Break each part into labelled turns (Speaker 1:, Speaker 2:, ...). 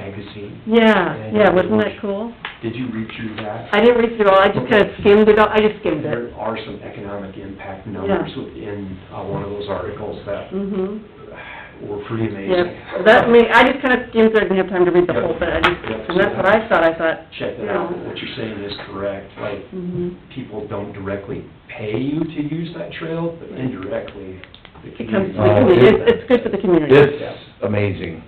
Speaker 1: magazine.
Speaker 2: Yeah, yeah, wasn't that cool?
Speaker 1: Did you read through that?
Speaker 2: I didn't read through all, I just kinda skimmed it all, I just skimmed it.
Speaker 1: There are some economic impact numbers within uh, one of those articles that
Speaker 2: hmm
Speaker 1: were pretty amazing.
Speaker 2: yeah, that, me, I just kinda skimmed it, I didn't have time to read the whole thing, I
Speaker 1: Yep.
Speaker 2: just, and that's what I thought, I thought,
Speaker 1: Check that out, what you're saying is correct, like,
Speaker 2: hmm
Speaker 1: people don't directly pay you to use that trail, but indirectly, the
Speaker 2: It comes,
Speaker 1: community.
Speaker 2: to the community. it's, it's good for the community.
Speaker 3: It's amazing.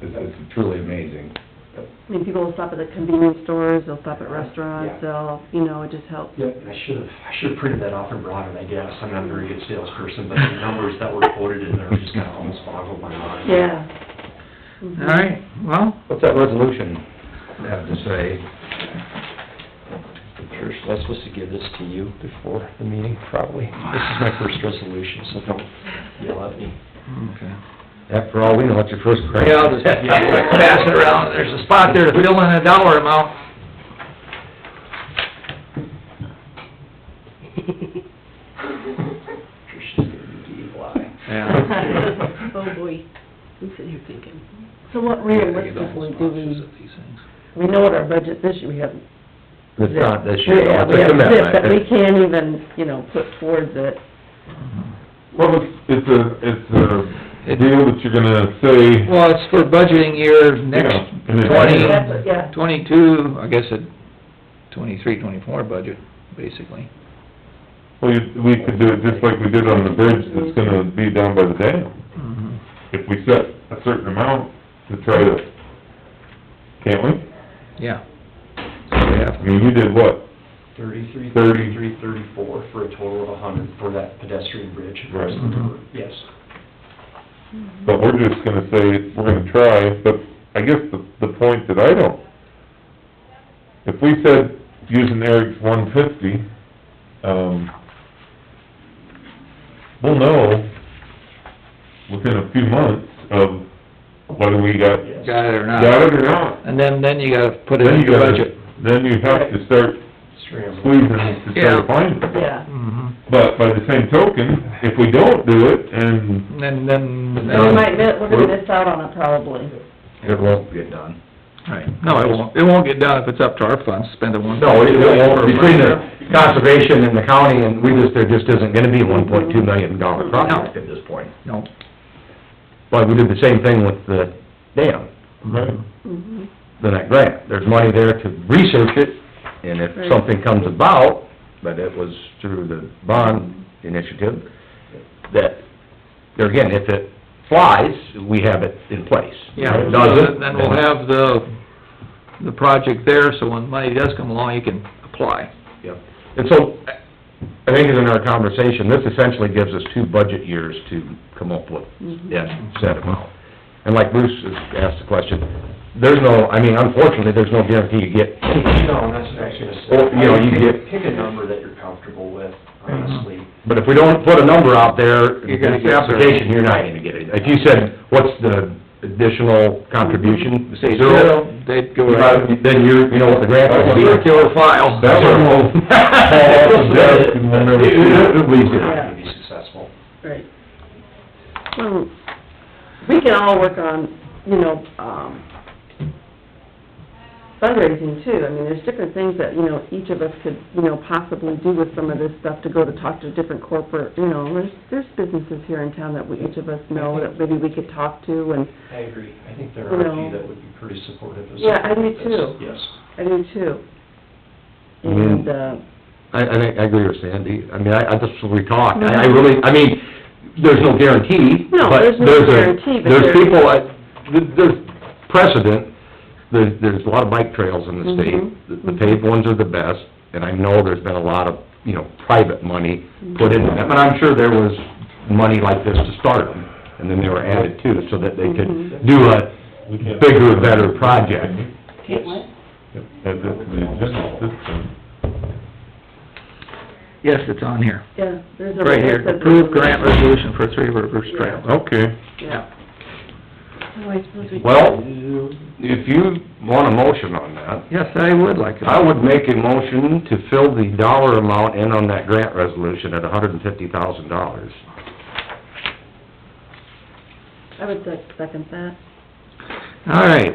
Speaker 3: It's, it's truly amazing.
Speaker 2: I mean, people will stop at the convenience stores, they'll stop at restaurants, they'll, you know, it just helps.
Speaker 1: Yep, and I should have, I should have printed that off and brought it, I guess, I'm not a very good salesperson, but the numbers that were quoted in there just kind of almost boggled my mind.
Speaker 2: Yeah. Mhm.
Speaker 4: All right, well,
Speaker 3: What's that resolution have to say?
Speaker 1: Trish, was I supposed to give this to you before the meeting, probably? This is my first resolution, so don't yell at me.
Speaker 4: okay.
Speaker 3: After all, we know it's your first grant.
Speaker 4: Yeah, I'll just pass it around, there's a spot there to fill in a dollar amount.
Speaker 1: Trish is gonna be E evil eye.
Speaker 3: Yeah.
Speaker 5: Oh, boy, I'm sitting here thinking,
Speaker 2: Mm-hmm. So what realistically do we, we know what our budget this year, we have.
Speaker 3: It's not this year,
Speaker 2: Yeah,
Speaker 3: though.
Speaker 2: we
Speaker 3: it's a
Speaker 2: have this,
Speaker 3: commitment.
Speaker 2: but we can't even, you know, put towards it.
Speaker 4: Mm-hmm.
Speaker 6: Well, it's, it's a, it's a deal that you're gonna say,
Speaker 4: Well, it's for budgeting year next
Speaker 6: Yeah, and it-
Speaker 4: twenty,
Speaker 2: That's it, yeah.
Speaker 4: twenty-two, I guess it, twenty-three, twenty-four budget, basically.
Speaker 6: well, you- we could do it just like we did on the bridge that's gonna be down by the dam.
Speaker 4: Mhm.
Speaker 6: If we set a certain amount to try to, can't we?
Speaker 4: Yeah. So we
Speaker 6: I
Speaker 4: have,
Speaker 6: mean, you did what?
Speaker 1: Thirty-three,
Speaker 6: Thirty.
Speaker 1: thirty-three, thirty-four, for a total of a hundred for that pedestrian bridge.
Speaker 6: Right.
Speaker 4: Mhm.
Speaker 1: Yes.
Speaker 6: But we're just gonna say, we're gonna try, but I guess the, the point that I don't, if we said, using Eric's one fifty, um, we'll know within a few months of whether we got,
Speaker 1: Yes.
Speaker 4: got it or not.
Speaker 6: got it or not.
Speaker 4: And then, then you gotta put it
Speaker 6: Then
Speaker 4: in
Speaker 6: you
Speaker 4: your
Speaker 6: gotta,
Speaker 4: budget.
Speaker 6: then you have to start
Speaker 1: Scramble.
Speaker 6: squeezing to try
Speaker 4: Yeah.
Speaker 6: to find it.
Speaker 2: Yeah.
Speaker 4: Mhm.
Speaker 6: But by the same token, if we don't do it, and
Speaker 4: And then, then...
Speaker 2: So we might, miss- we're gonna miss out on it probably.
Speaker 3: It won't get done.
Speaker 4: Right, no, it won't, it won't get done if it's up to our funds, spend it one...
Speaker 3: No, it it won't, between the conservation and the county, and we just, there just isn't gonna be one point two million dollar project at this point.
Speaker 4: No.
Speaker 3: But we did the same thing with the dam,
Speaker 2: Mm-hmm.
Speaker 3: the that grant. There's money there to research it, and if
Speaker 2: Right.
Speaker 3: something comes about, but it was through the bond initiative, that, there again, if it flies, we have it in place. If
Speaker 4: Yeah,
Speaker 3: it
Speaker 4: so
Speaker 3: doesn't,
Speaker 4: then- then we'll have the, the project there, so when money does come along, you can apply.
Speaker 3: Yep. And so, I think in our conversation, this essentially gives us two budget years to come up with that set amount. And like Bruce has asked the question, there's no, I mean, unfortunately, there's no guarantee you get
Speaker 1: No, that's what I was gonna say.
Speaker 3: Well, you know, you get- Mm-hmm.
Speaker 1: Pick a number that you're comfortable with, honestly.
Speaker 3: But if we don't put a number out there,
Speaker 4: You're
Speaker 3: in
Speaker 4: gonna
Speaker 3: the
Speaker 4: get zero.
Speaker 3: application, you're not gonna get it. If you said, what's the additional contribution?
Speaker 4: Say zero, they'd go right...
Speaker 3: Then you're, you know what the grant would be.
Speaker 4: Zero killer file.
Speaker 6: That's what we'll, that's what we'll never see.
Speaker 1: We're not gonna be successful.
Speaker 2: Right. Well, we can all work on, you know, um, fundraising too. I mean, there's different things that, you know, each of us could, you know, possibly do with some of this stuff to go to talk to different corporate, you know, there's, there's businesses here in town that we, each of us know that maybe we could talk to and,
Speaker 1: I agree. I think there are a few that would be pretty supportive of something
Speaker 2: Yeah, I do
Speaker 1: like this.
Speaker 2: too.
Speaker 1: Yes.
Speaker 2: I do too.
Speaker 3: Mm-hmm.
Speaker 2: And, uh,
Speaker 3: I, I think, I agree with Sandy. I mean, I, I just, we talked, I, I really, I mean, there's no guarantee.
Speaker 2: Mm-hmm. No,
Speaker 3: but
Speaker 2: there's no
Speaker 3: a-
Speaker 2: guarantee, but there-
Speaker 3: There's people, that- th- there's precedent, there's, there's a lot of bike trails in the state.
Speaker 2: Mhm,
Speaker 3: The- The paved ones are the best, and I know there's been a lot of, you know, private money
Speaker 2: Mm-hmm.
Speaker 3: put into them. And I'm sure there was money like this to start them, and then they were added to, so that they
Speaker 2: Mm-hmm.
Speaker 3: could do a bigger, better project.
Speaker 6: Add this to the agenda at this time.
Speaker 4: Yes, it's on here,
Speaker 2: yeah, there's a...
Speaker 4: right here, approved grant resolution for Three Rivers Trail.
Speaker 6: Okay,
Speaker 4: Yeah.
Speaker 5: oh, I suppose we...
Speaker 3: Well, if you want a motion on that,
Speaker 4: Yes, I would like to.
Speaker 3: I would make a motion to fill the dollar amount in on that grant resolution at hundred and fifty thousand dollars.
Speaker 2: I would sec- second that.
Speaker 4: All right,